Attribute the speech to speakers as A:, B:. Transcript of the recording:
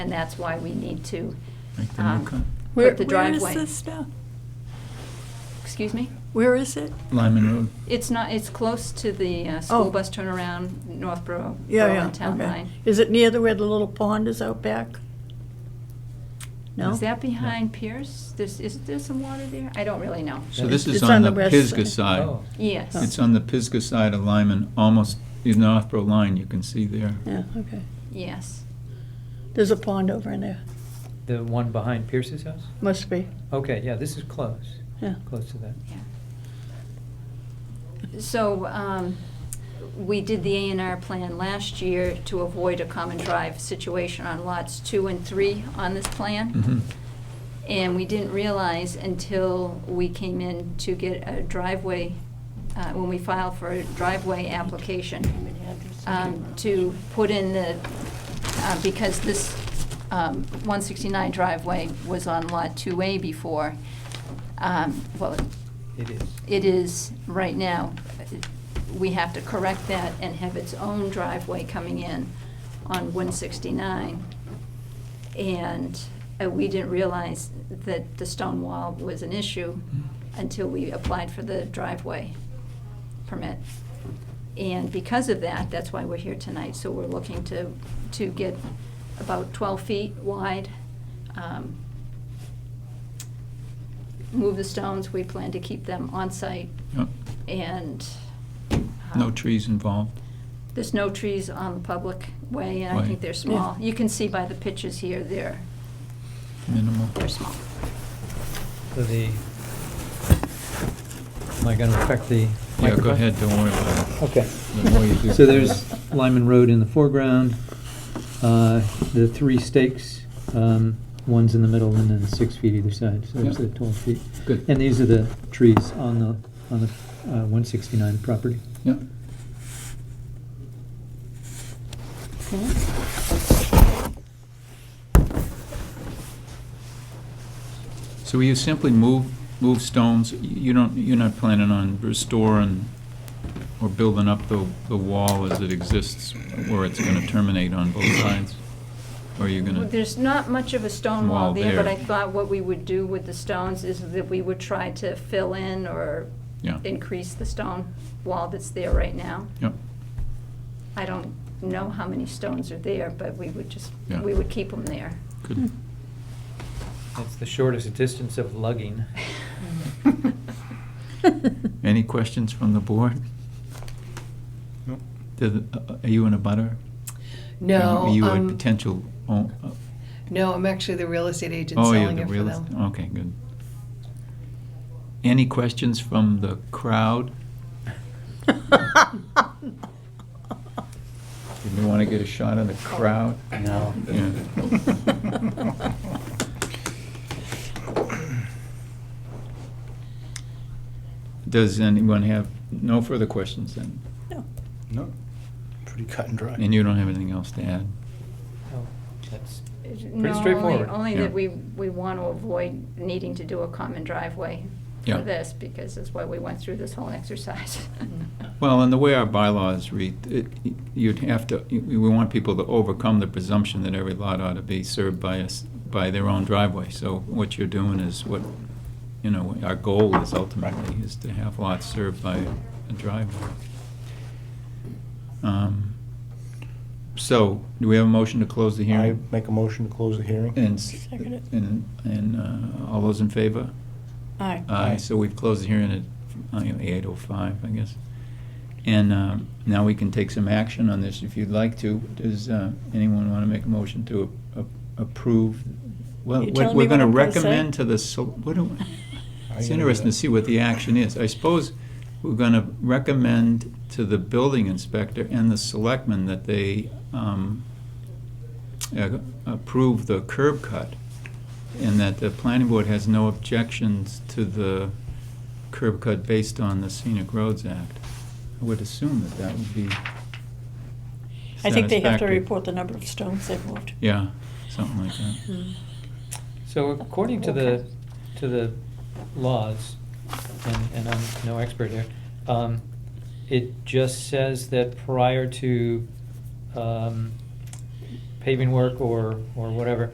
A: And that's why we need to,
B: Make the new
A: um,
B: cut.
A: put the
C: Where
A: driveway.
C: is this now?
A: Excuse me?
C: Where is it?
B: Lyman Road.
A: It's not, it's close to the uh, school
C: Oh.
A: bus turnaround, Northborough,
C: Yeah, yeah,
A: Berlin Town
C: okay.
A: Line.
C: Is it near the, where the little pond is out back? No?
A: Is that behind Pierce? There's, is there some water there? I don't really know.
B: So this is
C: It's
B: on the
C: west
B: Pisgah
C: side.
D: Oh.
B: side.
A: Yes,
B: It's on the Pisgah side of Lyman, almost the Northborough line, you can see there.
C: Yeah, okay.
A: yes.
C: There's a pond over in there.
D: The one behind Pierce's house?
C: Must be,
D: Okay, yeah, this is close,
C: yeah.
D: close to that.
A: So um, we did the A and R plan last year to avoid a common drive situation on lots two and three on this plan.
B: Mhm.
A: And we didn't realize until we came in to get a driveway, uh, when we filed for a driveway application, um, to put in the, uh, because this um, 169 driveway was on Lot 2A before, um, well,
D: It is.
A: it is right now. We have to correct that and have its own driveway coming in on 169. And uh, we didn't realize that the stone wall was an issue
D: Mm-hmm.
A: until we applied for the driveway permit. And because of that, that's why we're here tonight. So we're looking to, to get about 12 feet wide, um, move the stones, we plan to keep them on site
B: Yep.
A: and.
B: No
A: um,
B: trees involved.
A: There's no trees on the public way and I
B: Way.
A: think they're small. You can see by the pictures here, they're,
B: Minimal.
A: they're small.
D: So the, am I gonna affect the
B: Yeah, go
D: microphone?
B: ahead, don't worry about it.
D: Okay.
B: The more you do-
D: So there's Lyman Road in the foreground, uh, the three stakes, um, one's in the middle and then six feet either side, so it's
B: Yeah.
D: the twelve feet.
B: Good.
D: And these are the trees on the, on the, uh, one sixty-nine property.
B: Yeah. So will you simply move, move stones? You don't, you're not planning on restoring or building up the, the wall as it exists where it's gonna terminate on both sides? Or you're
A: Well,
B: gonna,
A: There's not much of a stone wall
B: Wall
A: there, but
B: there.
A: I thought what we would do with the stones is that we would try to fill in or
B: yeah,
A: increase the stone wall that's there right now.
B: yeah,
A: I don't know how many stones are there, but we would just,
B: Yeah.
A: we would keep them there.
B: good.
D: That's the shortest distance of lugging.
B: Any questions from the board?
E: Nope.
B: Did- uh, Are you in a butter?
F: No,
B: Are you a
F: um,
B: potential, own- uh,
F: no, I'm actually the real estate agent
B: oh, you're
F: selling
B: the
F: it for
B: realist?
F: them.
B: Okay, good. Any questions from the crowd? Did you want to get a shot of the crowd?
D: No.
B: Yeah. Does anyone have, no further questions then?
C: No.
E: No, pretty cut and dry.
B: And you don't have anything else to add?
D: Oh, That's
A: No, only-
D: straightforward.
A: Only
B: Yeah.
A: that we, we want to avoid needing to do a common driveway
B: Yeah.
A: for this, because that's why we went through this whole exercise.
B: Well, and the way our bylaws read, it- you'd have to, we want people to overcome the presumption that every lot ought to be served by us, by their own driveway. So what you're doing is what, you know, our goal is ultimately, is to have lots served by a driveway. Um, So, do we have a motion to close the
E: I
B: hearing?
E: make a motion to close the hearing.
B: And, s-
C: Second it.
B: and, and uh, all those in favor?
C: Aye.
B: Aye, so we've closed the hearing at uh, you know, 8:05, I guess. And um, now we can take some action on this if you'd like to. Does uh, anyone want to make a motion to a- a- approve? Well,
C: You
B: what
C: telling me
B: we're
C: what
B: going to
C: I'm gonna say?
B: recommend to the, sel- what do,
E: I
B: it's
E: can do
B: interesting to
E: that.
B: see what the action is. I suppose we're going to recommend to the building inspector and the selectmen that they um, uh, approve the curb cut, and that the planning board has no objections to the curb cut based on the Scenic Roads Act. I would assume that that would be
C: I think they have to
B: satisfactory.
C: report Hmm. the number of stones they've moved.
B: Yeah, something like that.
D: So according to the,
C: Okay.
D: to the laws, and, and I'm no expert here, um, it just says that prior to, um, paving work or, or whatever.